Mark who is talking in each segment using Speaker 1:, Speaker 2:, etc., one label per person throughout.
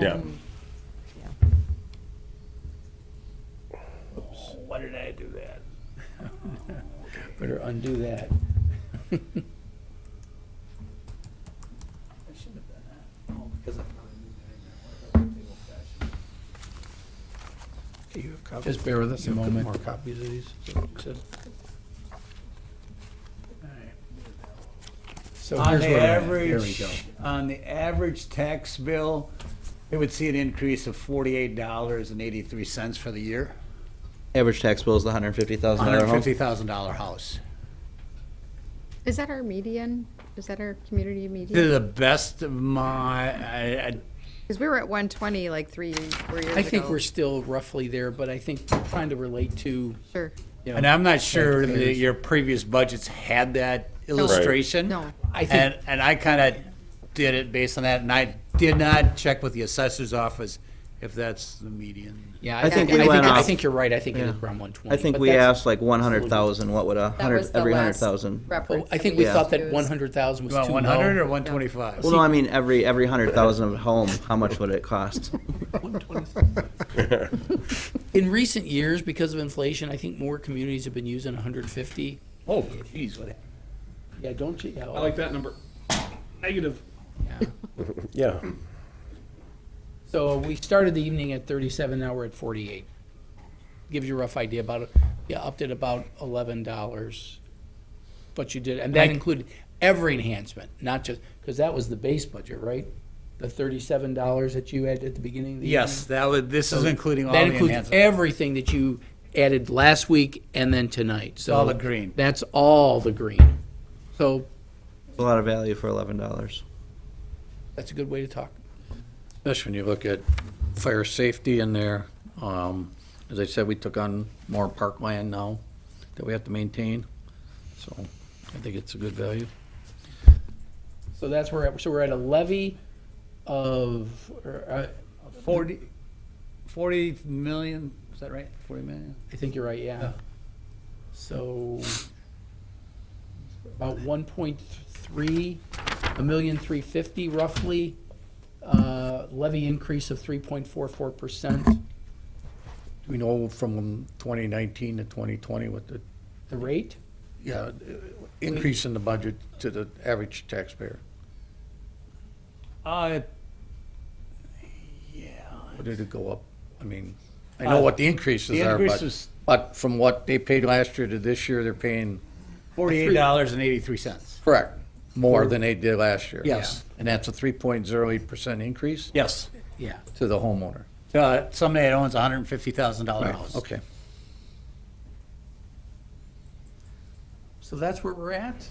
Speaker 1: Yeah.
Speaker 2: home. Yeah.
Speaker 3: Why did I do that?
Speaker 4: Better undo that.
Speaker 3: I shouldn't have done that. Oh, because I'm not a new guy now. I thought they were old-fashioned.
Speaker 5: You have copies,
Speaker 4: Just bear with us a
Speaker 5: you have
Speaker 4: moment.
Speaker 5: more copies of these? Is that what you said?
Speaker 4: So
Speaker 3: On
Speaker 4: here's
Speaker 3: the
Speaker 4: where we're at. There we
Speaker 3: average,
Speaker 4: go.
Speaker 3: on the average tax bill, they would see an increase of forty-eight dollars and eighty-three cents for the year.
Speaker 6: Average tax bill is the hundred and fifty thousand dollar
Speaker 3: Hundred
Speaker 6: home.
Speaker 3: fifty thousand dollar house.
Speaker 2: Is that our median? Is that our community
Speaker 3: To
Speaker 2: median?
Speaker 3: the best of my, I, I,
Speaker 2: Because we were at 120 like three, four years ago.
Speaker 4: I think we're still roughly there, but I think trying to relate to,
Speaker 2: Sure.
Speaker 4: you
Speaker 3: and
Speaker 4: know,
Speaker 3: I'm not sure that
Speaker 4: figures.
Speaker 3: your previous budgets had that illustration.
Speaker 2: No.
Speaker 4: I think,
Speaker 3: And, and I kinda did it based on that, and I did not check with the assessor's office if that's the median.
Speaker 4: yeah,
Speaker 6: I
Speaker 4: I think,
Speaker 6: think we
Speaker 4: I think,
Speaker 6: went
Speaker 4: I
Speaker 6: off-
Speaker 4: think you're right. I think it is
Speaker 6: Yeah.
Speaker 4: around one twenty.
Speaker 6: I think we asked like one hundred thousand, what would a
Speaker 2: That was
Speaker 6: hundred,
Speaker 2: the
Speaker 6: every hundred
Speaker 2: last
Speaker 6: thousand?
Speaker 2: reference
Speaker 4: Oh, I think we
Speaker 6: Yeah.
Speaker 4: thought that
Speaker 2: used.
Speaker 4: one hundred thousand was
Speaker 3: About
Speaker 4: too
Speaker 3: one hundred
Speaker 4: low.
Speaker 3: or one twenty-five?
Speaker 6: Well, no, I mean, every, every hundred thousand home, how much would it cost?
Speaker 4: In recent years, because of inflation, I think more communities have been using hundred fifty.
Speaker 3: Oh, geez, what,
Speaker 4: Yeah, don't you?
Speaker 5: I like that number. Negative.
Speaker 1: Yeah.
Speaker 4: So we started the evening at thirty-seven, now we're at forty-eight. Gives you a rough idea about, you upped it about eleven dollars. But you did, and that included every enhancement, not just, because that was the base budget, right? The thirty-seven dollars that you had at the beginning of the evening?
Speaker 3: Yes, that would, this is including all the
Speaker 4: That includes
Speaker 3: enhancements.
Speaker 4: everything that you added last week and then tonight, so.
Speaker 3: all the green.
Speaker 4: That's all the green. So
Speaker 6: A lot of value for eleven dollars.
Speaker 4: that's a good way to talk.
Speaker 7: Especially when you look at fire safety in there. Um, As I said, we took on more parkland now that we have to maintain. So I think it's a good value.
Speaker 4: So that's where, so we're at a levy of, or, uh,
Speaker 3: Forty, forty million, is that right? Forty million?
Speaker 4: I think you're right, yeah. So about one point three, a million three fifty roughly, uh, levy increase of three point four four percent.
Speaker 7: We know from 2019 to 2020 what the,
Speaker 4: The rate,
Speaker 7: yeah, increase in the budget to the average taxpayer,
Speaker 3: Uh,
Speaker 7: What did it go up? I mean, I know what the increases
Speaker 3: the
Speaker 7: are,
Speaker 3: increase
Speaker 7: but,
Speaker 3: was-
Speaker 7: but from what they paid last year to this year, they're paying,
Speaker 3: forty-eight dollars and eighty-three cents.
Speaker 7: correct, more than they did last year.
Speaker 3: Yes.
Speaker 7: And that's a 3.08% increase?
Speaker 3: Yes.
Speaker 4: yeah.
Speaker 7: To the homeowner.
Speaker 3: Uh, somebody that owns a hundred and fifty thousand dollar house.
Speaker 7: Okay.
Speaker 4: So that's where we're at.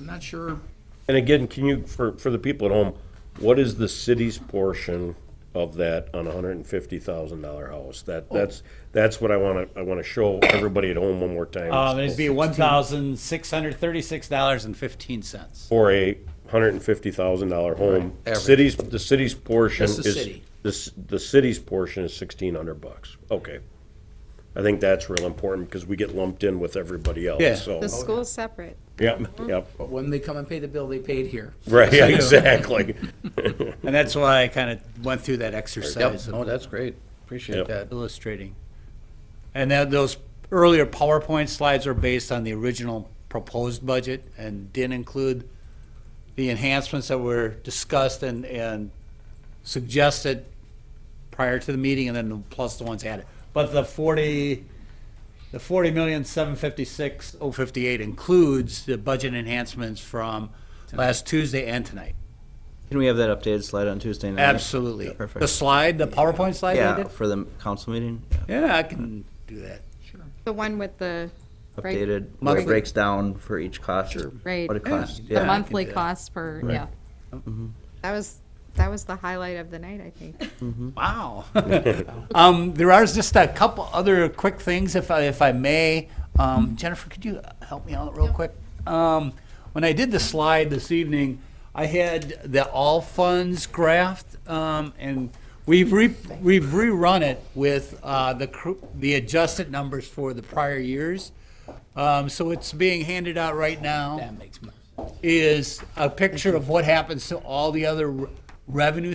Speaker 4: I'm not sure,
Speaker 1: And again, can you, for, for the people at home, what is the city's portion of that on a hundred and fifty thousand dollar house?
Speaker 4: Oh.
Speaker 1: That, that's, that's what I wanna, I wanna show everybody at home one more time.
Speaker 3: Um, it'd be one thousand six hundred thirty-six dollars and fifteen cents.
Speaker 1: For a hundred and fifty thousand dollar home,
Speaker 7: average.
Speaker 1: city's, the city's portion
Speaker 4: That's
Speaker 1: is.
Speaker 4: the city.
Speaker 1: The, c- the city's portion is sixteen hundred bucks. Okay. I think that's real important because we get lumped in with everybody
Speaker 3: Yeah.
Speaker 1: else, so.
Speaker 2: The school's separate.
Speaker 1: Yep, yep.
Speaker 4: but when they come and pay the bill, they pay it here.
Speaker 1: Right, yeah, exactly.
Speaker 3: And that's why I kind of went through that
Speaker 7: Yep,
Speaker 3: exercise
Speaker 7: no,
Speaker 3: of
Speaker 7: that's great. Appreciate
Speaker 1: Yep.
Speaker 7: that.
Speaker 3: illustrating. And that, those earlier PowerPoint slides are based on the original proposed budget and didn't include the enhancements that were discussed and, and suggested prior to the meeting and then plus the ones added. But the forty, the forty million, seven fifty-six, oh fifty-eight includes the budget enhancements from last Tuesday and tonight.
Speaker 6: Can we have that updated slide on Tuesday night?
Speaker 3: Absolutely.
Speaker 6: Perfect.
Speaker 3: The slide, the PowerPoint slide we
Speaker 6: Yeah,
Speaker 3: did?
Speaker 6: for the council meeting,
Speaker 3: Yeah, I can do that.
Speaker 2: The one with the, right?
Speaker 6: updated, where
Speaker 2: Monthly.
Speaker 6: it breaks down for each cost.
Speaker 2: Right.
Speaker 6: What it
Speaker 2: Yeah.
Speaker 6: costs,
Speaker 2: The
Speaker 6: yeah. Mm-hmm.
Speaker 2: monthly cost per, yeah. That was, that was the highlight of the night, I think.
Speaker 3: Wow. um, there are just a couple other quick things, if I, if I may. Um, Jennifer, could you help me out real quick? Um, when I did the slide this evening, I had the all funds graph, um, and we've re- we've rerun it with uh, the cr- the adjusted numbers for the prior years. Um, so it's being handed out right now
Speaker 4: That makes more sense.
Speaker 3: is a picture of what happens to all the other re- revenue